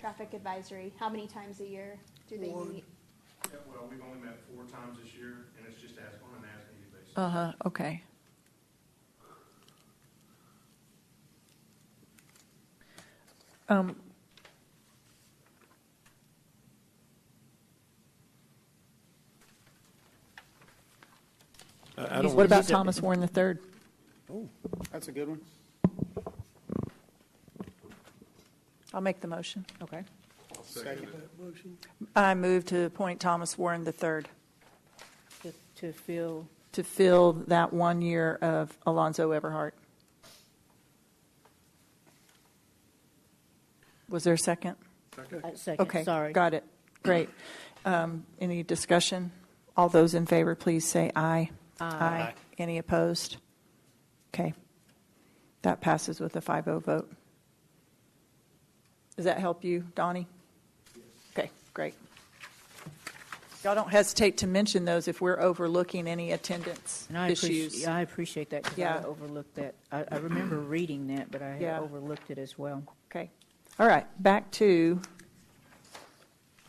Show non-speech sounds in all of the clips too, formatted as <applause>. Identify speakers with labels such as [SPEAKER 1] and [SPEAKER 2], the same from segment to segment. [SPEAKER 1] traffic advisory? How many times a year do they
[SPEAKER 2] One.
[SPEAKER 1] meet?
[SPEAKER 3] Yeah, well, we've only met four times this year, and it's just as, on an as-needed basis.
[SPEAKER 4] Uh-huh, okay. Um,
[SPEAKER 5] I I don't.
[SPEAKER 4] What about Thomas Warren the third?
[SPEAKER 2] Oh, that's a good one.
[SPEAKER 4] I'll make the motion. Okay.
[SPEAKER 2] Second that motion.
[SPEAKER 4] I move to appoint Thomas Warren the third
[SPEAKER 6] to- to fill,
[SPEAKER 4] to fill that one year of Alonzo Everhart. Was there a second?
[SPEAKER 6] uh, second,
[SPEAKER 4] Okay,
[SPEAKER 6] sorry.
[SPEAKER 4] got it. Great. Um, Any discussion? All those in favor, please say aye. Aye. Any opposed? Okay. That passes with a 5-0 vote. Does that help you, Donnie? Okay, great. Y'all don't hesitate to mention those if we're overlooking any attendance
[SPEAKER 6] And I appreciate,
[SPEAKER 4] issues.
[SPEAKER 6] I appreciate that, because I
[SPEAKER 4] Yeah.
[SPEAKER 6] overlooked that. I, I remember reading that, but I
[SPEAKER 4] Yeah.
[SPEAKER 6] had overlooked it as well.
[SPEAKER 4] Okay. All right, back to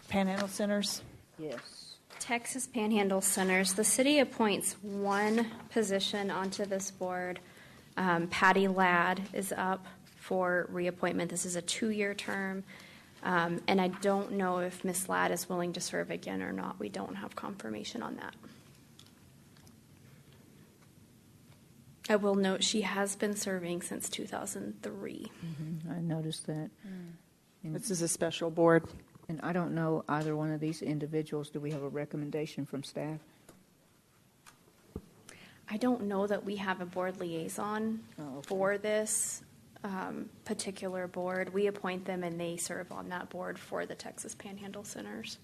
[SPEAKER 4] Panhandle Centers.
[SPEAKER 6] Yes.
[SPEAKER 7] Texas Panhandle Centers, the city appoints one position onto this board. Um, Patty Ladd is up for reappointment. This is a two-year term. Um, And I don't know if Ms. Ladd is willing to serve again or not. We don't have confirmation on that. I will note she has been serving since 2003.
[SPEAKER 6] I noticed that.
[SPEAKER 4] This is a special board.
[SPEAKER 6] And I don't know either one of these individuals. Do we have a recommendation from staff?
[SPEAKER 7] I don't know that we have a board liaison
[SPEAKER 4] Uh,
[SPEAKER 6] Oh, okay.
[SPEAKER 7] for this um, particular board. We appoint them and they serve on that board for the Texas Panhandle Centers.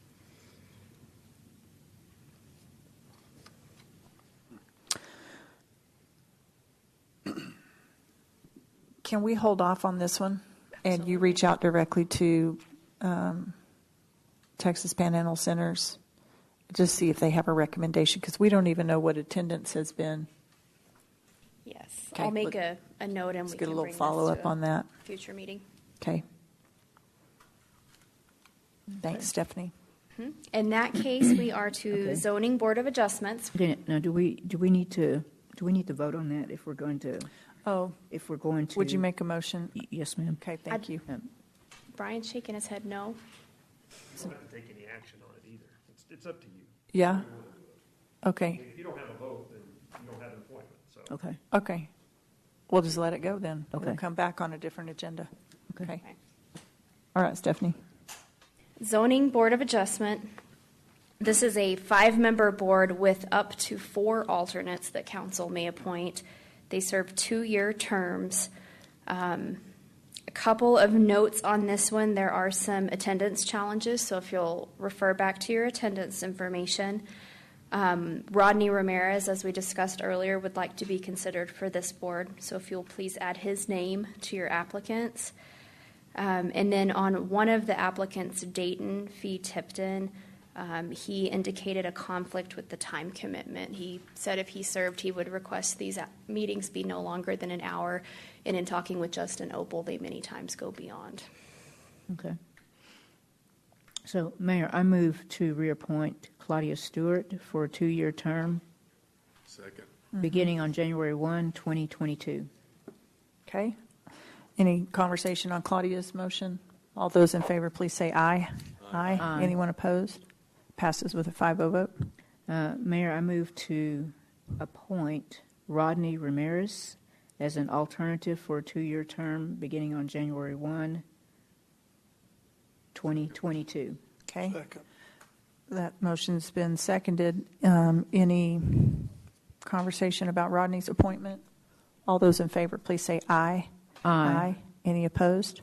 [SPEAKER 4] Can we hold off on this one? And you reach out directly to um, Texas Panhandle Centers? Just see if they have a recommendation, because we don't even know what attendance has been.
[SPEAKER 7] Yes,
[SPEAKER 4] Okay,
[SPEAKER 7] I'll make a,
[SPEAKER 4] let-
[SPEAKER 7] a note and
[SPEAKER 4] Let's
[SPEAKER 7] we can
[SPEAKER 4] get a
[SPEAKER 7] bring
[SPEAKER 4] little
[SPEAKER 7] this to
[SPEAKER 4] follow-up on
[SPEAKER 7] a
[SPEAKER 4] that.
[SPEAKER 7] future meeting.
[SPEAKER 4] Okay. Thanks, Stephanie.
[SPEAKER 7] In that case, we are
[SPEAKER 4] <clears throat>
[SPEAKER 7] to
[SPEAKER 6] Okay.
[SPEAKER 7] zoning board of adjustments.
[SPEAKER 6] Then, Now, do we, do we need to, do we need to vote on that if we're going to,
[SPEAKER 4] Oh,
[SPEAKER 6] if we're going to?
[SPEAKER 4] would you make a motion?
[SPEAKER 6] Y- Yes, ma'am.
[SPEAKER 4] Okay, thank you.
[SPEAKER 6] Um,
[SPEAKER 7] Brian's shaking his head no.
[SPEAKER 3] You don't have to take any action on it either. It's, it's up to you.
[SPEAKER 4] Yeah? Okay,
[SPEAKER 3] If you don't have a vote, then you don't have an appointment, so.
[SPEAKER 6] Okay,
[SPEAKER 4] okay. We'll just let it go then. We'll
[SPEAKER 6] Okay.
[SPEAKER 4] come back on a different agenda.
[SPEAKER 6] Okay.
[SPEAKER 4] Okay.
[SPEAKER 7] Okay.
[SPEAKER 4] All right, Stephanie.
[SPEAKER 7] Zoning Board of Adjustment. This is a five-member board with up to four alternates that council may appoint. They serve two-year terms. Um, A couple of notes on this one, there are some attendance challenges, so if you'll refer back to your attendance information. Um, Rodney Ramirez, as we discussed earlier, would like to be considered for this board, so if you'll please add his name to your applicants. Um, and then on one of the applicants, Dayton Fee Tipton, um, he indicated a conflict with the time commitment. He said if he served, he would request these a- meetings be no longer than an hour. And in talking with Justin Opel, they many times go beyond.
[SPEAKER 6] okay. So, Mayor, I move to reappoint Claudia Stewart for a two-year term,
[SPEAKER 2] Second.
[SPEAKER 6] beginning on January 1, 2022.
[SPEAKER 4] Okay. Any conversation on Claudia's motion? All those in favor, please say aye. Aye.
[SPEAKER 6] Aye.
[SPEAKER 4] Anyone opposed? Passes with a 5-0 vote.
[SPEAKER 6] Uh, Mayor, I move to appoint Rodney Ramirez as an alternative for a two-year term beginning on January 1, 2022.
[SPEAKER 4] Okay,
[SPEAKER 2] Second.
[SPEAKER 4] that motion's been seconded. Um, Any conversation about Rodney's appointment? All those in favor, please say aye. Any opposed?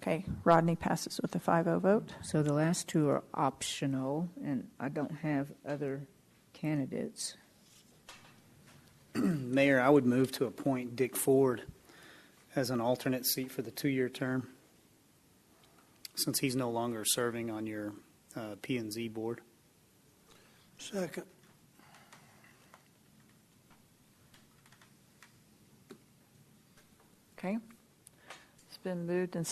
[SPEAKER 4] Okay, Rodney passes with a 5-0 vote.
[SPEAKER 6] So the last two are optional, and I don't have other candidates.
[SPEAKER 8] <clears throat> Mayor, I would move to appoint Dick Ford as an alternate seat for the two-year term, since he's no longer serving on your uh, P and Z board.
[SPEAKER 2] Second.
[SPEAKER 4] Okay? It's been moved and